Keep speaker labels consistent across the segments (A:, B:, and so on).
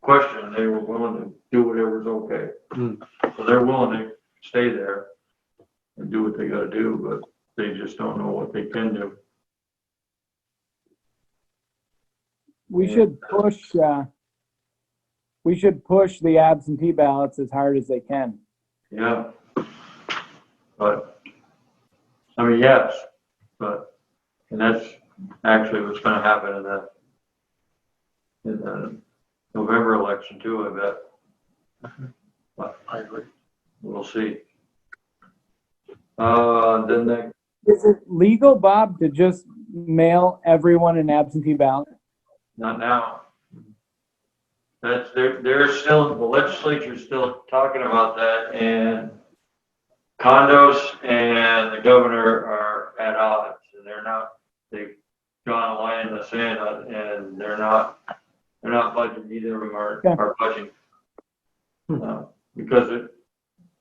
A: question, they were willing to do whatever was
B: Hmm.
A: okay. So they're willing to stay there and do what they gotta do, but they just don't know what they can do.
C: We
A: Yeah.
C: should push, uh, we should push the absentee ballots as hard as they can.
A: Yeah. But, I mean, yes, but, and that's actually what's gonna happen in the, in the November election too, I bet. But I agree. We'll see. Uh, then that,
C: Is it legal, Bob, to just mail everyone an absentee ballot?
A: not now. That's, they're, they're still, the legislature's still talking about that and condos and the governor are at odds and they're not, they've gone away in the sand uh, and they're not, they're not budgeting, either of them are,
C: Yeah.
A: are budgeting. Uh, Because it,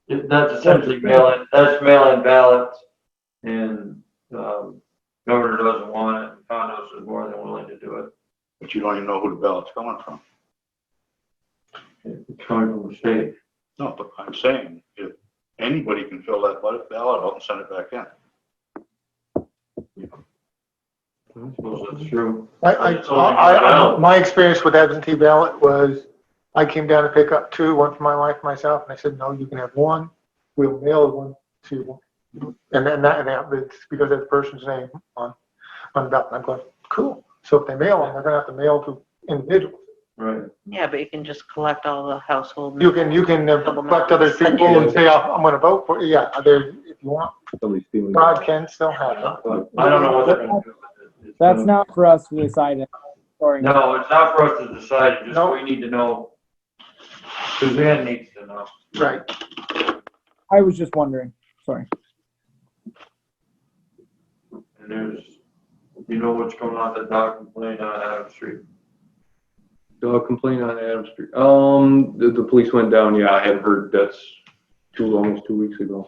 A: it- that's essentially mail-in, that's mail-in ballots and, um, governor doesn't want it, and condos is more than willing to do it.
D: But you don't even know who the ballot's coming from.
A: It's coming from the state.
D: No, but I'm saying, if anybody can fill that ballot ballot out and send it back in.
A: I suppose that's true.
E: I, I,
A: It's only
E: I, I,
A: ballot.
E: my experience with absentee ballot was, I came down to pick up two, one for my wife and myself, and I said, no, you can have one. We'll mail one to you. And then that, and that, it's because that person's name on, on the ballot. And I'm going, cool. So if they mail them, they're gonna have to mail to individuals.
A: Right.
F: Yeah, but you can just collect all the household.
E: You can, you can uh, collect other people and say, "Oh, I'm gonna vote for, you." yeah, there, if you want,
B: Somebody's feeling.
E: God can still have it.
A: But I don't know what they're gonna do with it. It's
C: That's
A: gonna-
C: not for us to decide. it. Sorry.
A: No, it's not for us to decide, it's just
E: No.
A: we need to know. Suzanne needs to know.
E: Right.
C: I was just wondering. Sorry.
A: And there's, you know what's going on, the dog complaint on Adam Street.
B: Dog complaint on Adam Street. Um, the, the police went down. Yeah, I hadn't heard. That's two, almost two weeks ago.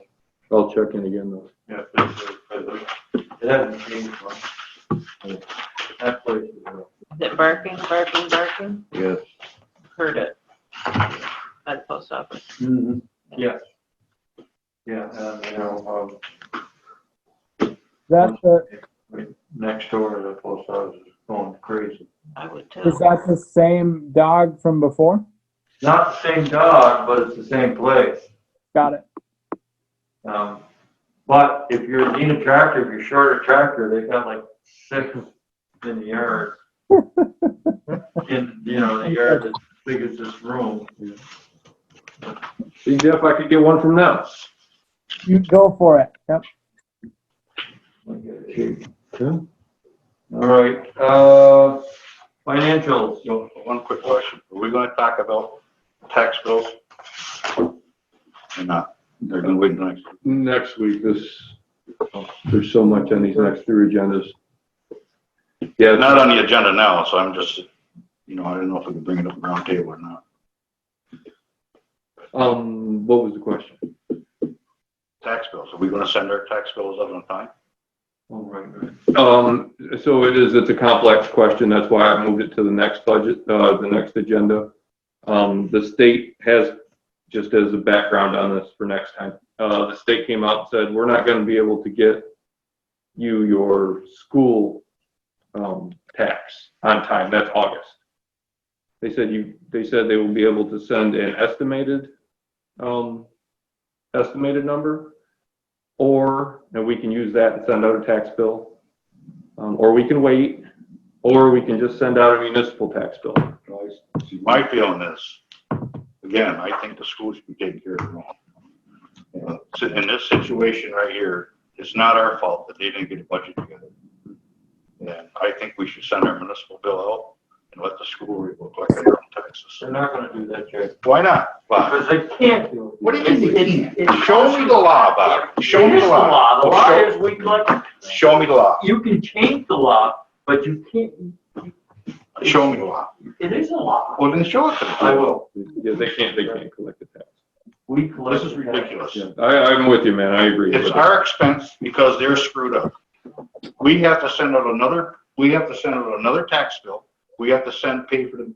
B: I'll check in again though.
A: Yeah, it's, it's- it hasn't changed much. That place is, uh,
F: Is it barking, barking, barking?
B: Yes.
F: Heard it. By the post office.
A: yes. Yeah, and, you know,
C: That's the,
A: um, next door, the post office is going crazy.
F: I would too.
C: is that the same dog from before?
A: Not the same dog, but it's the same place.
C: Got it.
A: Um, but if you're a Dina tractor, if you're short a tractor, they've got like six in the yard. In, you know, the yard as big as this room.
B: See Jeff, I could get one from them.
C: You go for it. Yep.
B: Okay.
A: All right, uh, financials,
D: So, one quick question, are we gonna talk about tax bills? Or not? They're gonna wait until next.
B: Next week, this, there's so much on these next three agendas.
D: They're
B: Yeah,
D: not on the agenda now, so I'm just, you know, I don't know if we can bring it up round table or not.
B: um, what was the question?
D: Tax bills, are we gonna send our tax bills out on time?
A: all right, right.
B: Um, so it is, it's a complex question, that's why I moved it to the next budget, uh, the next agenda. Um, the state has, just as a background on this for next time, uh, the state came out and said, we're not gonna be able to get you your school, um, tax on time, that's August. They said you, they said they will be able to send an estimated, um, estimated number, or, and we can use that and send out a tax bill. Um, or we can wait, or we can just send out a municipal tax bill.
D: See, my feeling is, again, I think the schools should be taking care of their own. Uh, so In this situation right here, it's not our fault that they didn't get a budget together. And I think we should send our municipal bill out and let the school collect their own taxes.
A: They're not gonna do that, Jerry.
D: Why not? Bob?
A: Because they can't do it.
D: What do you mean they can't? Show me the law, Bob. Show me the law.
A: The law is we collect,
D: Show me the law.
A: you can change the law, but you can't,
D: Show me the law.
A: it is a law.
D: Well, then show it to me.
A: I will.
B: Yeah, they can't, they can't collect the tax.
A: We collect.
D: This is ridiculous.
B: Yeah, I, I'm with you, man, I agree.
D: It's
B: with
D: our expense because they're screwed up. We have to send out another, we have to send out another tax bill. We have to send, pay for the